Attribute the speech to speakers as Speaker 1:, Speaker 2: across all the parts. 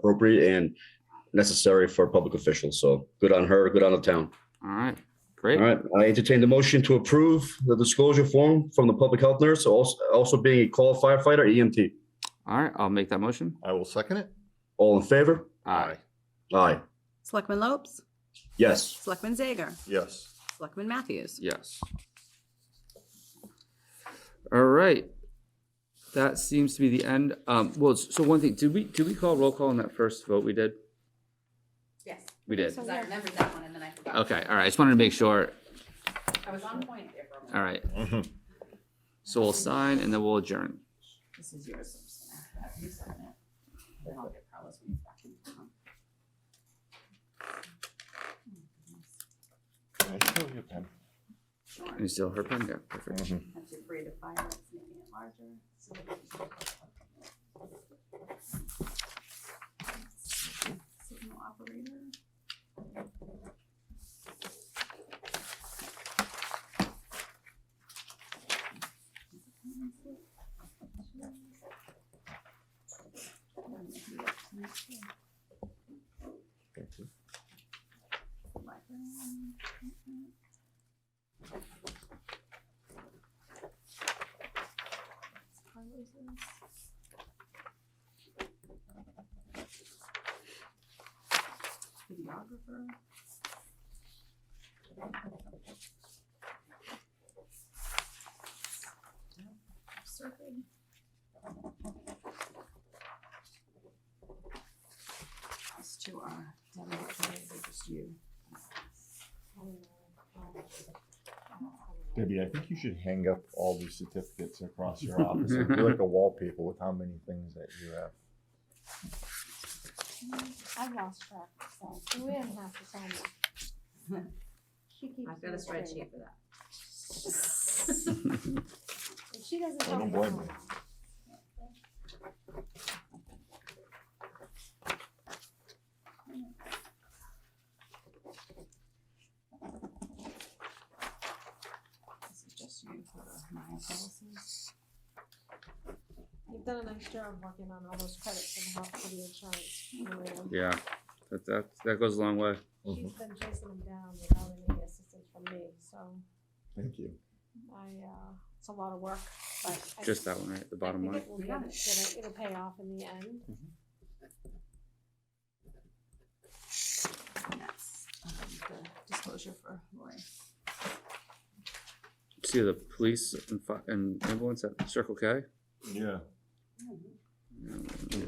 Speaker 1: appropriate and necessary for public officials. So good on her, good on the town.
Speaker 2: All right,
Speaker 1: All
Speaker 2: great.
Speaker 1: right, I entertain the motion to approve the disclosure form from the public health nurse, also, also being a call firefighter, E EMT.
Speaker 2: All right, I'll make that motion. Uh,
Speaker 3: I will second it.
Speaker 1: All in favor?
Speaker 2: Aye.
Speaker 1: Aye.
Speaker 4: Selectman Lopes,
Speaker 1: Yes.
Speaker 4: Selectman Zager,
Speaker 3: Yes.
Speaker 4: Selectman Matthews.
Speaker 2: Yes. All right. That seems to be the end. Um, well, s- so one thing, did we, did we call roll call on that first vote we did?
Speaker 5: Yes, Oh.
Speaker 2: We did.
Speaker 5: because I remembered that one and then I forgot.
Speaker 2: Okay, all right, I just wanted to make sure.
Speaker 5: I was on point there for a moment.
Speaker 2: All right,
Speaker 3: Mhm.
Speaker 2: so we'll sign and then we'll adjourn.
Speaker 5: This is yours. so I'm just gonna have you sign it. Then I'll get Carlos when he's back in town.
Speaker 3: I still have them.
Speaker 2: And you still her pen? Yeah, perfect.
Speaker 3: Mhm.
Speaker 5: Once you're free to fire it, making it larger. so that we can- Signal operator. Videographer. Surfing. These two are demo players, they're just you.
Speaker 3: Debbie, I think you should hang up all these certificates across your office. It'd be like a wallpaper with how many things that you have.
Speaker 6: I've lost track, so we didn't have to sign it. She keeps.
Speaker 5: I've got a
Speaker 6: me straight.
Speaker 5: spreadsheet for that.
Speaker 6: If She doesn't.
Speaker 3: I don't
Speaker 6: help me
Speaker 3: blame
Speaker 6: out.
Speaker 5: This is just you for the Maya policies.
Speaker 6: You've done a nice job working on all those credits and help for the insurance. Maria.
Speaker 2: Yeah, that, that, that goes a long way.
Speaker 6: She's been chasing them down without any assistance from me, so
Speaker 3: Thank you.
Speaker 6: I, uh, it's a lot of work, but. I
Speaker 2: Just that one, right? The
Speaker 6: I
Speaker 2: bottom
Speaker 6: think
Speaker 2: line.
Speaker 6: it will get it, it'll, it'll pay off in the end.
Speaker 5: And that's, um, the disclosure for Lori.
Speaker 2: See the police and fi- and ambulance at Circle K?
Speaker 3: Yeah.
Speaker 2: Yeah.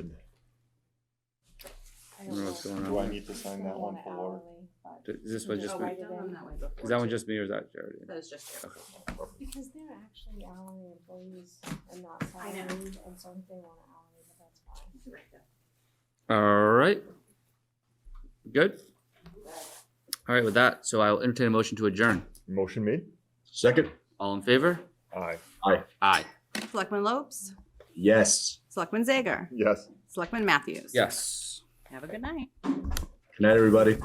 Speaker 6: I
Speaker 2: I don't know what's going
Speaker 3: Do I
Speaker 2: on.
Speaker 3: need to sign that one for Laura?
Speaker 2: there. Is this one just,
Speaker 5: Oh,
Speaker 2: me?
Speaker 5: I've done them that way before.
Speaker 2: is that one
Speaker 5: too.
Speaker 2: just me or is that Jared?
Speaker 5: That is just you.
Speaker 6: Because they're actually hourly employees and not
Speaker 5: I know.
Speaker 6: salaried, and so if they want hourly, but that's fine.
Speaker 5: You're right, though.
Speaker 2: All right. Good. All right, with that, so I'll entertain a motion to adjourn.
Speaker 3: Motion made?
Speaker 1: Second?
Speaker 2: All in favor?
Speaker 3: Aye.
Speaker 2: Aye.
Speaker 4: Selectman Lopes,
Speaker 1: Yes.
Speaker 4: Selectman Zager,
Speaker 3: Yes.
Speaker 4: Selectman Matthews.
Speaker 2: Yes.
Speaker 4: Have a good night.
Speaker 1: Good night, everybody.